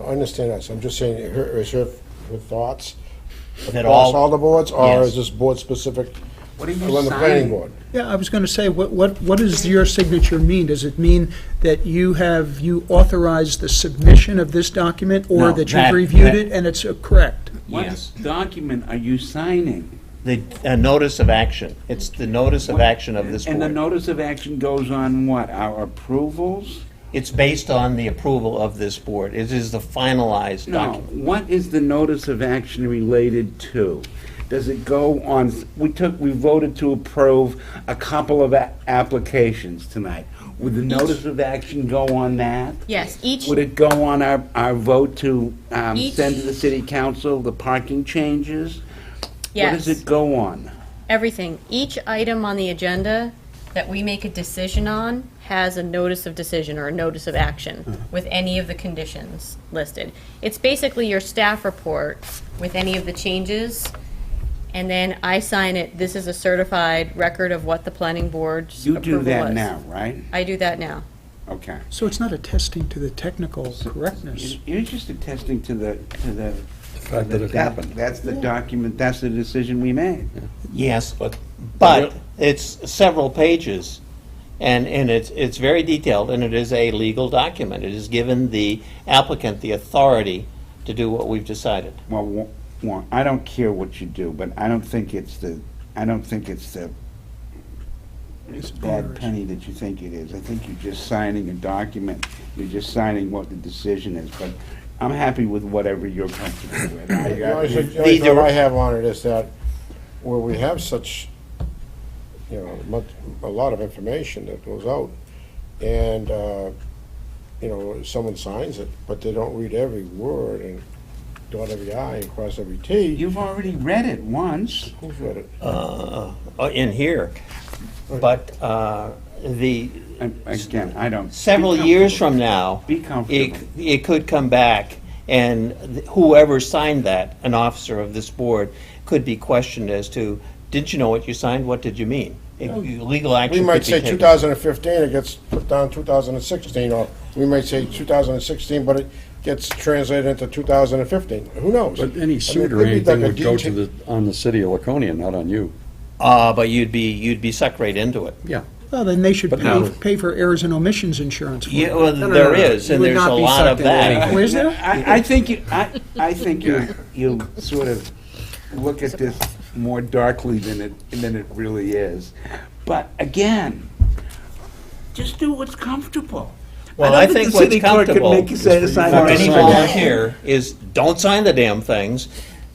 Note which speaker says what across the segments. Speaker 1: I understand that, so I'm just saying, her, is her, her thoughts
Speaker 2: That
Speaker 1: across
Speaker 2: all-
Speaker 1: all the boards, or
Speaker 2: Yes.
Speaker 1: is this board specific?
Speaker 3: What are you
Speaker 1: On the planning
Speaker 3: signing?
Speaker 1: board?
Speaker 4: Yeah, I was going to say, what, what, what does your signature mean? Does it mean that you have, you authorized the submission of this document? Or
Speaker 2: No,
Speaker 4: that
Speaker 2: that-
Speaker 4: you've reviewed
Speaker 2: that-
Speaker 4: it and it's uh, correct?
Speaker 3: What document are you signing?
Speaker 2: The, a notice of action. It's the notice of action of this
Speaker 3: And the
Speaker 2: board.
Speaker 3: notice of action goes on what, our approvals?
Speaker 2: It's based on the approval of this board. It is the finalized
Speaker 3: No,
Speaker 2: document.
Speaker 3: what is the notice of action related to? Does it go on, we took, we voted to approve a couple of a- applications tonight. Would the notice of action go on that?
Speaker 5: Yes, each,
Speaker 3: Would it go on our, our vote to um,
Speaker 5: Each-
Speaker 3: send to the city council the parking changes? What
Speaker 5: yes,
Speaker 3: does it go on?
Speaker 5: everything. Each item on the agenda that we make a decision on has a notice of decision or a notice of
Speaker 3: Uh-huh.
Speaker 5: action with any of the conditions listed. It's basically your staff report with any of the changes, and then I sign it, this is a certified record of what the planning board's
Speaker 3: You
Speaker 5: approval
Speaker 3: do
Speaker 5: was.
Speaker 3: that now, right?
Speaker 5: I do that now.
Speaker 3: Okay.
Speaker 4: So it's not attesting to the technical correctness.
Speaker 3: You're just attesting to the, to the.
Speaker 6: fact that it happened.
Speaker 3: That's the document, that's the decision we made.
Speaker 2: Yes,
Speaker 6: But-
Speaker 2: but it's several pages, and, and it's, it's very detailed, and it is a legal document. It has given the applicant the authority to do what we've decided.
Speaker 3: Well, wa- wa- I don't care what you do, but I don't think it's the, I don't think it's the bad
Speaker 4: onerous.
Speaker 3: penny that you think it is. I think you're just signing a document, you're just signing what the decision is, but I'm happy with whatever you're comfortable with. I-
Speaker 1: The only
Speaker 3: I-
Speaker 1: thing- the only
Speaker 2: The
Speaker 1: thought
Speaker 2: dir-
Speaker 1: I have on it is that, where we have such, you know, much, a lot of information that goes out, and, uh, you know, someone signs it, but they don't read every word and dot every i and cross every t.
Speaker 3: You've already read it once.
Speaker 1: Who's read it?
Speaker 2: uh, in here. But uh, the,
Speaker 3: I- Again, I don't.
Speaker 2: several years from now,
Speaker 3: Be
Speaker 2: it,
Speaker 3: comfortable.
Speaker 2: it could come back, and whoever signed that, an officer of this board, could be questioned as to, did you know what you signed? What did you mean? It- Legal action
Speaker 1: We
Speaker 2: could
Speaker 1: might
Speaker 2: be
Speaker 1: say
Speaker 2: taken.
Speaker 1: 2015, it gets put down 2016, or we might say 2016, but it gets translated into 2015. Who knows?
Speaker 6: But
Speaker 1: I mean,
Speaker 6: any
Speaker 1: it
Speaker 6: suit
Speaker 1: could
Speaker 6: or
Speaker 1: be like
Speaker 6: anything
Speaker 1: a
Speaker 6: would go to
Speaker 1: detail-
Speaker 6: the, on the city of Laconia, not on you.
Speaker 2: Uh, but you'd be, you'd be sucked right into it.
Speaker 6: Yeah.
Speaker 4: Well, then they should
Speaker 6: But
Speaker 4: pay,
Speaker 6: no.
Speaker 4: pay for errors and omissions insurance for
Speaker 2: Yeah,
Speaker 4: it.
Speaker 2: well,
Speaker 7: No, no,
Speaker 2: there
Speaker 7: no, no.
Speaker 2: is,
Speaker 7: You
Speaker 2: and
Speaker 7: would
Speaker 2: there's
Speaker 7: not
Speaker 2: a
Speaker 7: be
Speaker 2: lot of
Speaker 7: sucked into
Speaker 2: that.
Speaker 7: anything.
Speaker 4: Where's there?
Speaker 3: I, I think, you- I, I think you, you sort of look at this more darkly than it, than it really is. But again, just do what's comfortable.
Speaker 2: Well,
Speaker 3: don't
Speaker 2: I think
Speaker 3: the
Speaker 2: what's
Speaker 3: city clerk could
Speaker 2: comfortable
Speaker 3: make you say to
Speaker 6: is for
Speaker 3: sign
Speaker 2: for
Speaker 6: you
Speaker 3: off.
Speaker 6: to
Speaker 2: any
Speaker 6: sign off.
Speaker 2: volunteer is, don't sign the damn things.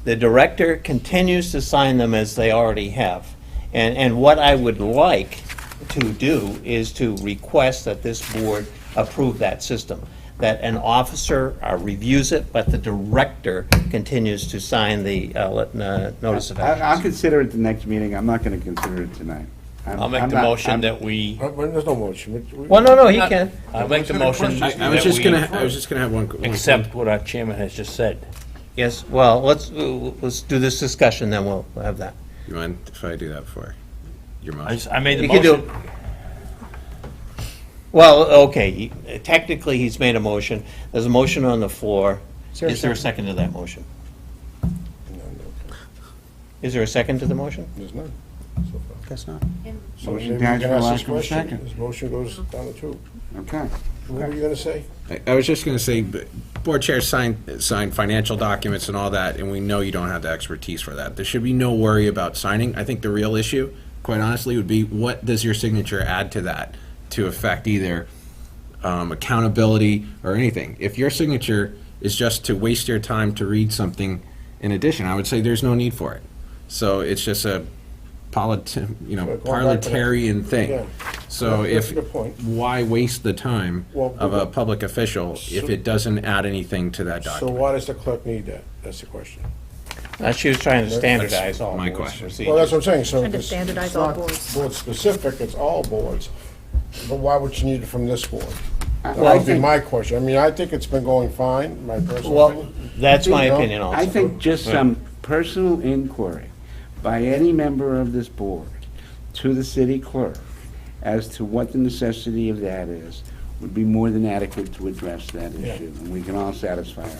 Speaker 2: The director continues to sign them as they already have. And, and what I would like to do is to request that this board approve that system. That an officer uh, reviews it, but the director continues to sign the uh, let- uh, notice of
Speaker 3: I- I'll
Speaker 2: actions.
Speaker 3: consider it the next meeting, I'm not gonna consider it tonight. I'm-
Speaker 8: I'll make
Speaker 3: I'm
Speaker 8: the
Speaker 3: not-
Speaker 8: motion
Speaker 3: I'm-
Speaker 8: that we,
Speaker 1: Uh, well, There's no motion. We- we-
Speaker 2: Well, no, no, he can.
Speaker 8: I'll make the motion
Speaker 7: I, I was just gonna, I
Speaker 8: that
Speaker 7: was just gonna have one. one-
Speaker 8: we accept what our chairman has just said.
Speaker 2: Mm-hmm. Yes, well, let's, uh, let's do this discussion, then we'll have that.
Speaker 7: You mind if I do that for your
Speaker 8: I
Speaker 7: motion?
Speaker 8: s- I made the
Speaker 2: You can do
Speaker 8: motion.
Speaker 2: Well, okay, he- technically, he's made a motion. There's a motion on the floor. Is there a second to that motion? Is there a second to the motion?
Speaker 1: There's none. so far.
Speaker 4: Guess not.
Speaker 1: So
Speaker 3: Motion
Speaker 1: maybe we
Speaker 3: dies
Speaker 1: can
Speaker 3: for
Speaker 1: ask
Speaker 3: lack
Speaker 1: this
Speaker 3: of a
Speaker 1: question.
Speaker 3: second.
Speaker 1: This motion goes
Speaker 5: Mm-hmm.
Speaker 1: down the tube.
Speaker 3: Okay.
Speaker 1: What were you gonna say?
Speaker 7: I, I was just gonna say, b- board chairs sign, sign financial documents and all that, and we know you don't have the expertise for that. There should be no worry about signing. I think the real issue, quite honestly, would be what does your signature add to that to affect either um, accountability or anything? If your signature is just to waste your time to read something in addition, I would say there's no need for it. So it's just a politi, you
Speaker 1: So going back
Speaker 7: know,
Speaker 1: to that-
Speaker 7: parliamentarian
Speaker 1: Yeah.
Speaker 7: thing. So
Speaker 1: That's- that's
Speaker 7: if,
Speaker 1: a good point.
Speaker 7: why waste the time
Speaker 1: Well,
Speaker 7: of
Speaker 1: but-
Speaker 7: a public official if it doesn't add anything to that
Speaker 1: So
Speaker 7: document?
Speaker 1: why does the clerk need that? That's the question.
Speaker 2: Uh, She was trying to standardize all
Speaker 7: my
Speaker 2: boards'
Speaker 7: question.
Speaker 2: procedures.
Speaker 1: Well, that's what I'm saying, so.
Speaker 5: Trying to
Speaker 1: it's-
Speaker 5: standardize
Speaker 1: it's
Speaker 5: all
Speaker 1: not
Speaker 5: boards.
Speaker 1: Board-specific, it's all boards. But why would you need it from this board? That would be my question. I mean, I think it's been going fine, my personal
Speaker 2: Well,
Speaker 1: opinion.
Speaker 2: that's my
Speaker 1: You know,
Speaker 2: opinion also.
Speaker 3: I think just
Speaker 1: uh,
Speaker 3: some personal inquiry by any member of this board to the city clerk as to what the necessity of that is, would be more than adequate to address that
Speaker 1: Yeah.
Speaker 3: issue, and we can all satisfy